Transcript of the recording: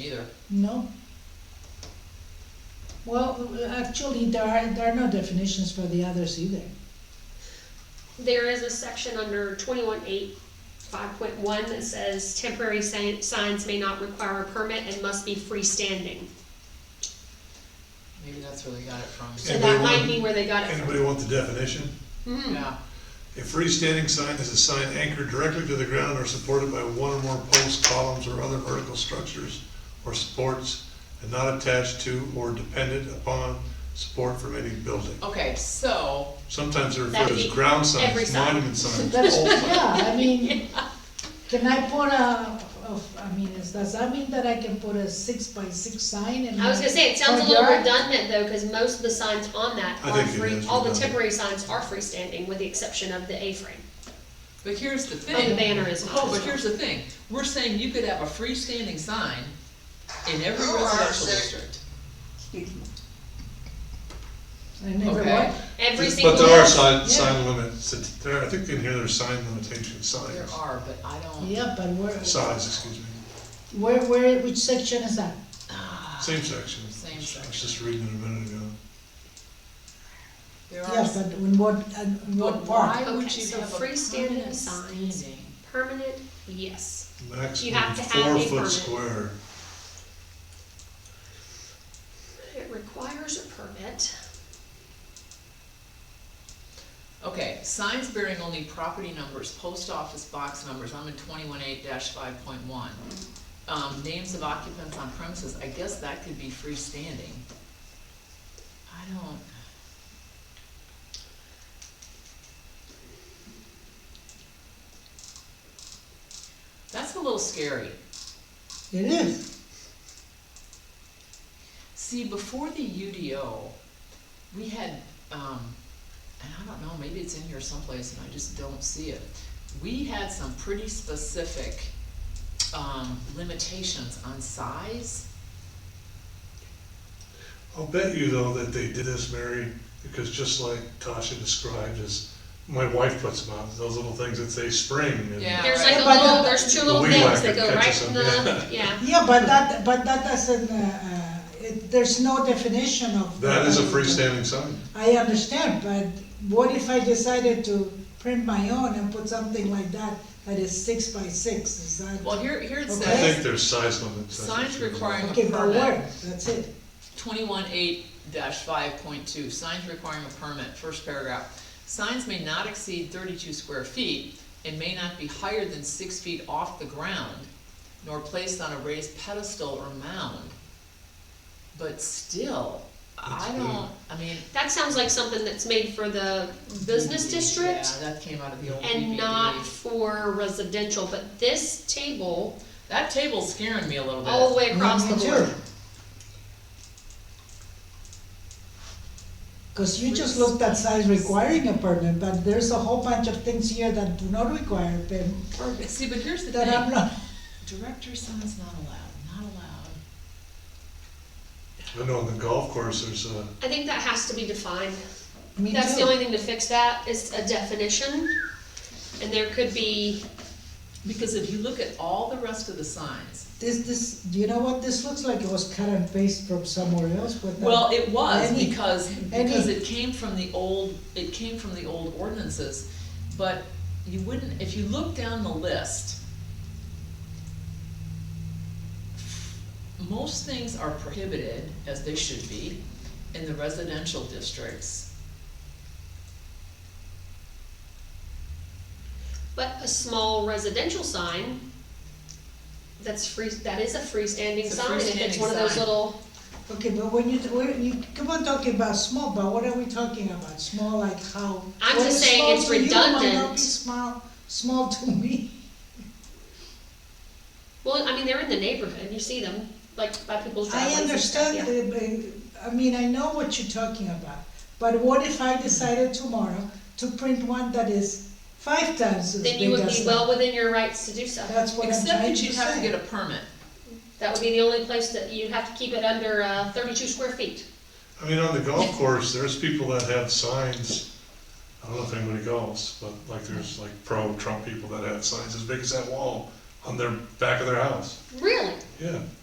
Either. No. Well, actually, there are, there are no definitions for the others either. There is a section under twenty-one eight, five point one that says temporary si- signs may not require a permit and must be freestanding. Maybe that's where they got it from. So Anybody that might want- be where they got it from. Anybody want the definition? Mhm. Yeah, A freestanding sign is a sign anchored directly to the ground or supported by one or more posts, columns, or other vertical structures or supports, and not attached to or dependent upon support from any building. okay, so, Sometimes they're That'd referred as be ground every signs, sign. monument signs. That's, Oh. yeah, I mean, can I put a, of- I mean, is- does that mean that I can put a six by six sign and? I was gonna say, it sounds a Front little yard? redundant though, cause most of the signs on that I are think it free, is all the redundant. temporary signs are freestanding with the exception of the A-frame. But here's the And the thing, banner is oh, but not. here's the thing, we're saying you could have a freestanding sign in every Who are residential sick? district. I never Okay. what? Every single. But there are house- sign, yeah. sign limits, there, I think in here there's sign limitation there signs, are, but I don't, Yeah, but where, size, excuse me, where, where, which section is that? Ah, same section. Same I was section. just reading it a minute ago. There are, Yeah, s- but in what, uh, in but what part? why would Okay, you so have a freestanding freestanding signs. sign? Permanent, yes. You Maximum have to have four a foot permit. square. It requires a permit. Okay, signs bearing only property numbers, post office box numbers, I'm in twenty-one eight five point one. Um, names of occupants on premises, I guess that could be freestanding. I don't. That's a little scary. It is, See, before the UDO, we had, um, and I don't know, maybe it's in here someplace and I just don't see it. We had some pretty specific, um, limitations on size. I'll bet you though that they did this, Mary, because just like Tasha described, is my wife puts them out, those little things that say spring and. Yeah. There's right. like a But- little, there's two The little weed things whacker that go right catches in them, the, yeah. yeah, but that, but that doesn't, uh, uh, it, there's no definition of. That is a freestanding sign. I understand, but what if I decided to print my own and put something like that, that is six by six, is that? Well, here, here it Okay. I think says, there's size limits. that's Signs what she was- requiring- Okay, by permit. word, that's it. twenty-one eight five point two, signs requiring a permit, first paragraph. Signs may not exceed thirty-two square feet and may not be higher than six feet off the ground, nor placed on a raised pedestal or mound. But still, I That's don't, I mean. That sounds like something that's made for the business district Yeah, that came out of the old and BBB. not for residential, but this table, That table's scaring me a little bit. all the way across the Me too. board. Cause you just looked at size requiring a permit, but there's a whole bunch of things here that do not require a permit, See, but here's the that I'm thing, not, director signs not allowed, not allowed. I know on the golf course, there's uh, a, I think that has to be defined. me That's the only too. thing to fix that, is a definition. And there could be, Because if you look at all the rest of the signs, This, this, do you know what, this looks like it was cut and paste from somewhere else without. Well, it was, Any- because, because it came from the old, it came from the old ordinances, but you wouldn't, if you look down the list, most things are prohibited, as they should be, in the residential districts. but a small residential sign, that's free, that is a freestanding It's a sign, if it's freestanding one of those sign. little, Okay, but when you, when you, come on talking about small, but what are we talking about? Small like how? I'm what just is saying small it's to you might not be redundant. Small, small to me. well, I mean, they're in the neighborhood, you see them, like by people's driveways. I and stuff, understand, the- yeah. the- I mean, I know what you're talking about, but what if I decided tomorrow to print one that is five times as Then big you would be as well that? within your rights to do so. That's what I'm Except trying that to you'd have to get say. a permit. That would be the only place that you'd have to keep it under uh, thirty-two square feet. I mean, on the golf course, there's people that have signs. I don't know if anybody golfs, but like there's like pro Trump people that have signs as big as that wall on their back of their house. Really? Yeah.